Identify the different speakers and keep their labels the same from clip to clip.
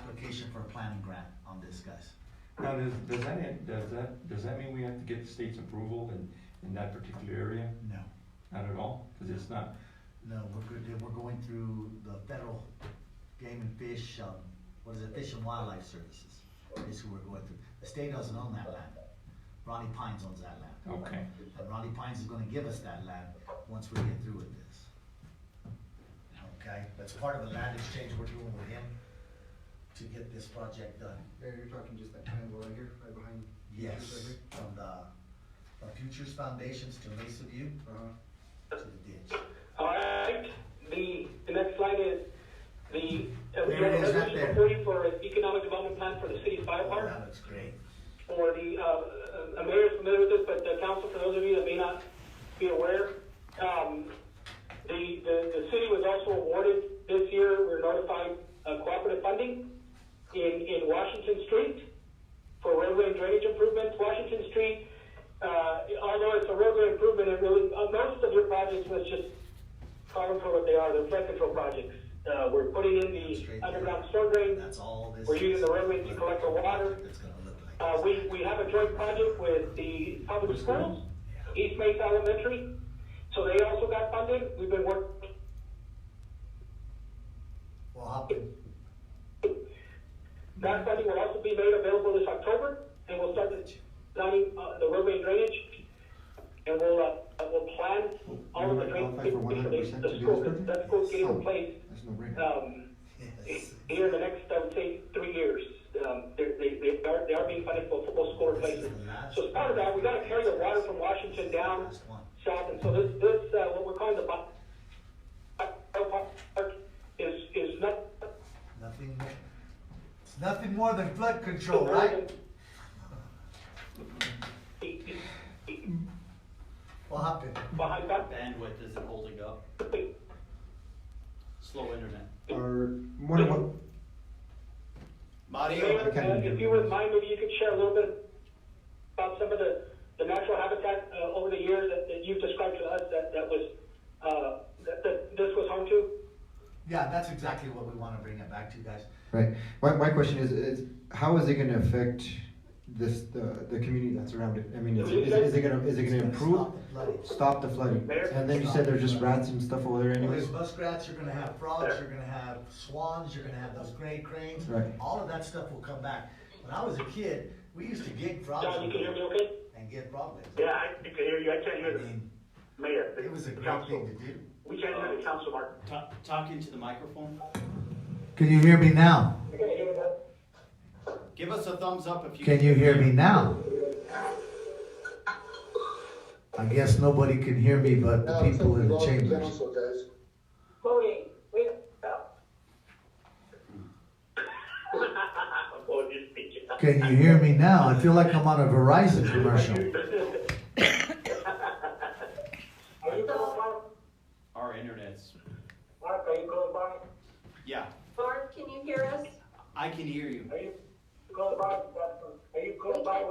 Speaker 1: application for a planning grant on this, guys.
Speaker 2: Now, does, does that, does that, does that mean we have to get the state's approval in, in that particular area?
Speaker 1: No,
Speaker 2: Not at all, because it's not,
Speaker 1: no, we're, good- we're going through the federal game and fish, um, what is it, Fish and Wildlife Services. Is who we're going through. The state doesn't own that land. Ronnie Pines owns that land.
Speaker 2: okay,
Speaker 1: And Ronnie Pines is gonna give us that land once we get through with this. Okay, that's part of the land exchange we're doing with him to get this project done.
Speaker 3: Yeah, you're talking just that triangle right here, right behind. you, right
Speaker 1: Yes,
Speaker 3: here.
Speaker 1: from the, the Futures Foundations to Mesa View
Speaker 3: Uh-huh.
Speaker 1: to the ditch.
Speaker 4: All right. The, the next slide is the uh,
Speaker 1: There it is, right
Speaker 4: resolution
Speaker 1: there.
Speaker 4: supporting for an economic development plan for the city fire
Speaker 1: Oh,
Speaker 4: park.
Speaker 1: that looks great.
Speaker 4: For the, uh, uh, I'm very familiar with this, but the council, for those of you that may not be aware, um, the, the, the city was also awarded this year, we're notified, uh, cooperative funding in, in Washington Street for roadway and drainage improvements. Washington Street, uh, although it's a roadway improvement, it really, uh, most of your projects was just call them for what they are, they're flood control projects. Uh, we're putting in
Speaker 1: Straight
Speaker 4: the
Speaker 1: there.
Speaker 4: underground storm drain.
Speaker 1: That's all this.
Speaker 4: We're using the roadway
Speaker 1: is.
Speaker 4: to collect the water.
Speaker 1: It's gonna look like.
Speaker 4: Uh, we, we have a joint project with the public schools, East Mesa Elementary, so they also got funded. We've been working,
Speaker 1: Well, hop in.
Speaker 4: that funding will also be made available this October, and we'll start designing, uh, the roadway drainage. And we'll, uh, we'll plan all of the drainage
Speaker 3: Qualify for
Speaker 4: for the,
Speaker 3: 100%
Speaker 4: the
Speaker 3: to do
Speaker 4: school,
Speaker 3: this project?
Speaker 4: that school's getting
Speaker 3: So,
Speaker 4: replaced,
Speaker 3: That's no brainer.
Speaker 4: um,
Speaker 1: Yes.
Speaker 4: here in the next, I would say, three years. Um, they're, they, they are, they are being funded for football school replacement. So as part of that, we gotta carry the water from Washington down
Speaker 1: Last one.
Speaker 4: south, and so this, this, uh, what we're calling the bu- is, is not.
Speaker 1: Nothing more. It's nothing more than flood control, right? Well, hop in.
Speaker 4: Behind that,
Speaker 5: bandwidth isn't holding up, slow internet.
Speaker 6: Or more than one,
Speaker 5: Mario,
Speaker 4: Mayor, uh, if you wouldn't mind, maybe you could share a little bit about some of the, the natural habitat, uh, over the years that, that you've described to us that, that was, uh, that, that this was home to?
Speaker 1: Yeah, that's exactly what we wanna bring it back to, guys.
Speaker 6: right? My, my question is, is how is it gonna affect this, the, the community that's around it? I mean, is, is is it gonna, is it
Speaker 1: It's
Speaker 6: gonna improve?
Speaker 1: stop the flooding.
Speaker 6: Stop the flooding? And then you said there's just rats and stuff over there
Speaker 1: Well, There's
Speaker 6: anyways?
Speaker 1: muskrats, you're gonna have frogs, you're gonna have swans, you're gonna have those gray cranes.
Speaker 6: Right.
Speaker 1: All of that stuff will come back. When I was a kid, we used to gig frogs
Speaker 4: John, you can hear me okay?
Speaker 1: and get broadlegs.
Speaker 4: Yeah, I can hear you, I can't
Speaker 1: I
Speaker 4: hear the
Speaker 1: mean,
Speaker 4: mayor.
Speaker 1: it was a great thing to do.
Speaker 4: We can't hear the council, Mark.
Speaker 5: ta- talk into the microphone.
Speaker 1: Can you hear me now?
Speaker 5: Give us a thumbs up if you.
Speaker 1: Can you hear me now? I guess nobody can hear me but the people in the chambers.
Speaker 4: Voting, wait. Oh, you speak.
Speaker 1: Can you hear me now? I feel like I'm on a Verizon commercial.
Speaker 4: Are you close, Mark?
Speaker 5: Our internet's,
Speaker 4: Mark, are you close, Mark?
Speaker 5: yeah,
Speaker 7: Barb, can you hear us?
Speaker 5: I can hear you.
Speaker 4: Are you close by? Are you close by?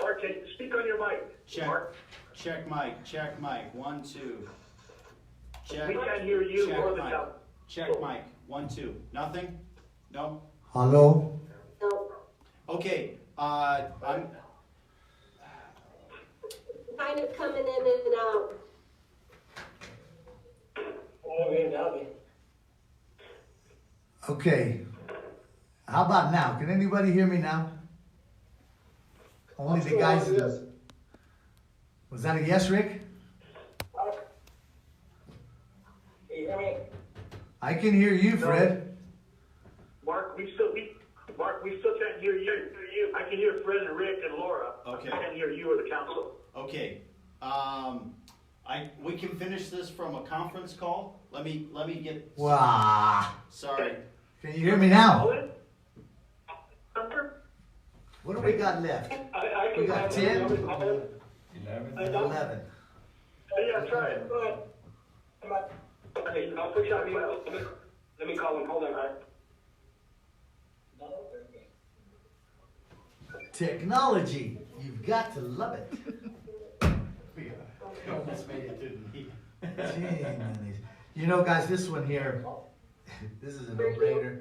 Speaker 4: Mark, can speak on your mic?
Speaker 5: Check,
Speaker 4: Mark,
Speaker 5: check mic, check mic, one, two. Check.
Speaker 4: We can't hear you
Speaker 5: check
Speaker 4: or the
Speaker 5: mic,
Speaker 4: sound.
Speaker 5: Check mic, one, two, nothing? No?
Speaker 1: Hello?
Speaker 7: No.
Speaker 5: Okay, uh, I'm,
Speaker 7: Kind of coming in and out.
Speaker 4: Oh, yeah, now then.
Speaker 1: Okay. How about now? Can anybody hear me now? Only the guys. in- Was that a yes, Rick?
Speaker 4: Mark? Hey, I mean,
Speaker 1: I can hear you, Fred.
Speaker 4: Mark, we still, we, Mark, we still can't hear you. I can hear Fred and Rick and Laura.
Speaker 5: Okay.
Speaker 4: I can't hear you or the council.
Speaker 5: Okay, um, I, we can finish this from a conference call. Let me, let me get,
Speaker 1: Wow.
Speaker 5: sorry.
Speaker 1: Can you hear me now?
Speaker 4: Owen? Hunter?
Speaker 1: What do we got left?
Speaker 4: I, I can.
Speaker 1: We got 10?
Speaker 4: Uh,
Speaker 2: eleven?
Speaker 4: don't-
Speaker 1: Eleven.
Speaker 4: Yeah, try it, go ahead. Come on. Okay, I'll push out email, let me, let me call him, hold on, all right?
Speaker 1: Technology. You've got to love it.
Speaker 5: Almost made it to the meeting.
Speaker 1: Gee, man, these- you know, guys, this one here, this is a no-brainer.